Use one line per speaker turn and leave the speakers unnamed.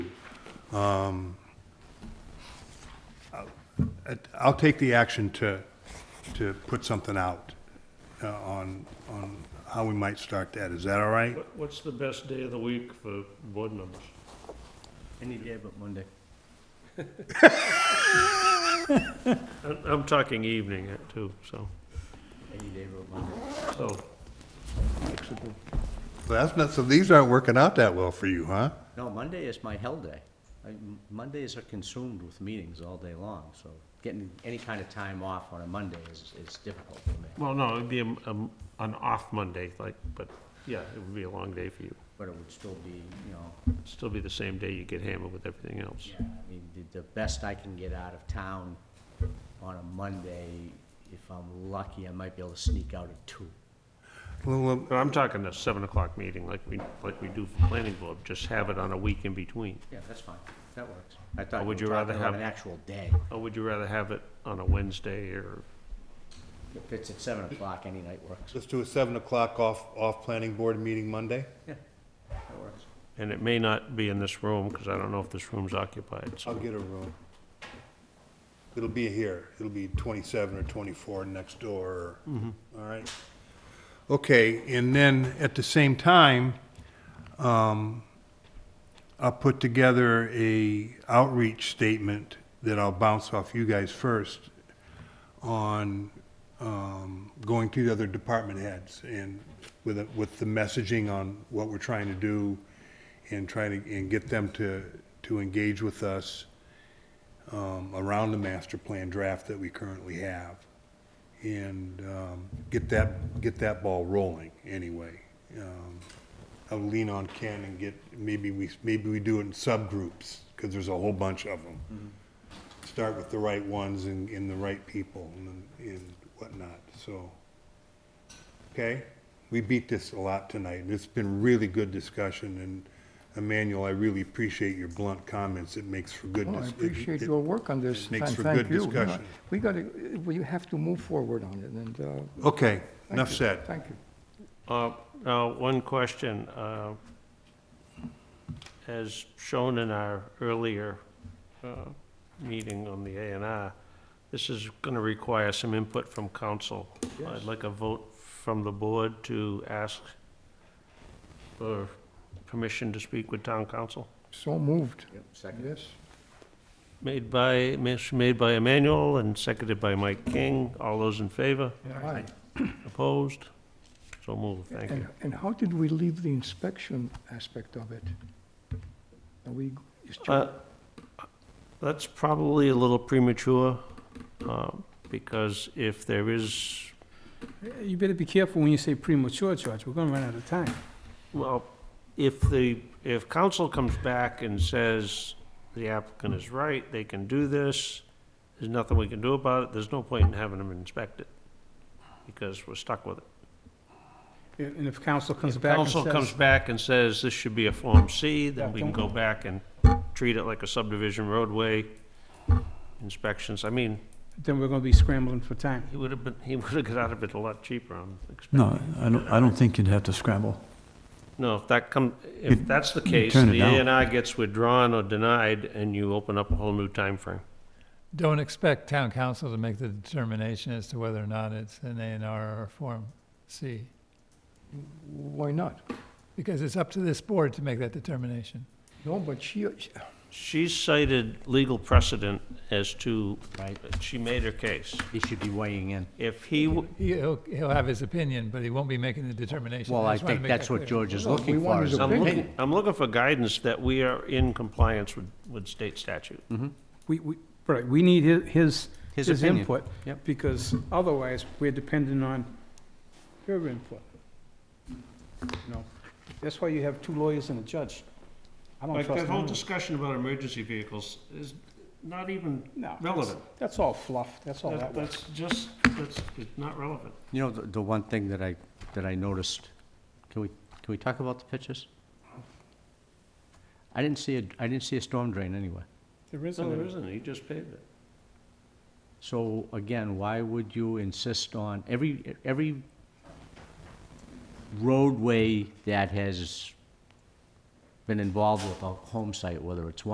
I'd- I'll take the action to, to put something out uh, on, on how we might start that. Is that all right?
What- What's the best day of the week for board members?
Any day but Monday.
I- I'm talking evening uh, too, so,
Any day but Monday.
so,
That's not, so these aren't working out that well for you, huh?
No, Monday is my hell day. I- m- Mondays are consumed with meetings all day long, so getting any kind of time off on a Monday is, is difficult for me.
well, no, it'd be a- a- an off Monday, like, but, yeah, it would be a long day for you.
But it would still be, you know,
Still be the same day you get hammered with everything else.
yeah, I mean, the, the best I can get out of town on a Monday, if I'm lucky, I might be able to sneak out at two.
Well, well,
But I'm talking a seven o'clock meeting like we, like we do for planning board, just have it on a week in between.
Yeah, that's fine. That works. I thought
Or
you were
would you rather
talking about
have-
an actual day.
Or would you rather have it on a Wednesday or,
If it's at seven o'clock, any night works.
let's do a seven o'clock off, off planning board meeting Monday.
Yeah, that works.
and it may not be in this room, because I don't know if this room's occupied,
I'll
so.
get a room. It'll be here. It'll be twenty-seven or twenty-four next door. All right. Okay, and then at the same time, um, I'll put together a outreach statement that I'll bounce off you guys first on, um, going to the other department heads and with, a- with the messaging on what we're trying to do and trying to, and get them to, to engage with us, um, around the master plan draft that we currently have. And, um, get that, get that ball rolling anyway. Um, I'll lean on Ken and get, maybe we, maybe we do it in subgroups, cause there's a whole bunch of them. Start with the right ones and, and the right people and, and whatnot, so. Okay? We beat this a lot tonight, and it's been really good discussion, and Emmanuel, I really appreciate your blunt comments. It makes for good.
Well, Oh, I
dis- it-
appreciate
it-
your work on this.
it makes
and
for
thank
good
you. You know,
discussion.
We got to, we have to move forward on it, and, uh,
Okay,
thank
enough
you.
said.
Thank you.
Uh, Now, one question. uh, As shown in our earlier uh, meeting on the A and R, this is going to require some input from council. I'd like a vote from the board to ask for permission to speak with town council.
So moved,
Yep, second.
yes.
Made by, motion made by Emmanuel and seconded by Mike King. All those in favor?
Aye.
Opposed? So moved. Thank you.
And, and how did we leave the inspection aspect of it? Are we, is Ju-
Uh, That's probably a little premature, uh, because if there is,
You better be careful when you say premature, George, we're gonna run out of time.
well, if the, if council comes back and says the applicant is right, they can do this, there's nothing we can do about it, there's no point in having them inspect it, because we're stuck with it.
And if council comes
If
back and
council comes
says,
back and says this should be a Form C, then
Yeah,
we can go
don't-
back and treat it like a subdivision roadway inspections. I mean,
then we're gonna be scrambling for time.
He would have been, he would have got out of it a lot cheaper, I'm expecting.
No, I don't, I don't think you'd have to scramble.
No, if that come, if
You'd-
that's the
you'd
case,
turn it
the A
down.
and R gets withdrawn or denied, and you open up a whole new time frame.
Don't expect town council to make the determination as to whether or not it's an A and R or a Form C,
why not?
because it's up to this board to make that determination.
No, but she, she-
She cited legal precedent as to,
Right.
she made her case.
He should be weighing in.
If he, w-
He'll, he'll have his opinion, but he won't be making the determination.
Well, I
just wanna
think
make that
that's what
clear.
George is
No, we
looking
want
for,
his
is an
I'm
opinion.
looking, I'm looking for guidance that we are in compliance with, with state statute.
We, we, right, we need hi- his,
His
his
opinion.
input.
Yep.
Because otherwise, we're dependent on her input. You know, that's why you have two lawyers and a judge. I don't
Like,
trust
that whole
none of
discussion about emergency vehicles is not even
No, that's-
relevant.
That's all fluff, that's all that
That-
was.
That's just, that's, it's not relevant.
You know, the, the one thing that I, that I noticed, can we, can we talk about the pictures? I didn't see a, I didn't see a storm drain anywhere.
There isn't.
No, there
any.
isn't, he just paved it.
So again, why would you insist on, every, every roadway that has been involved with a home site, whether it's one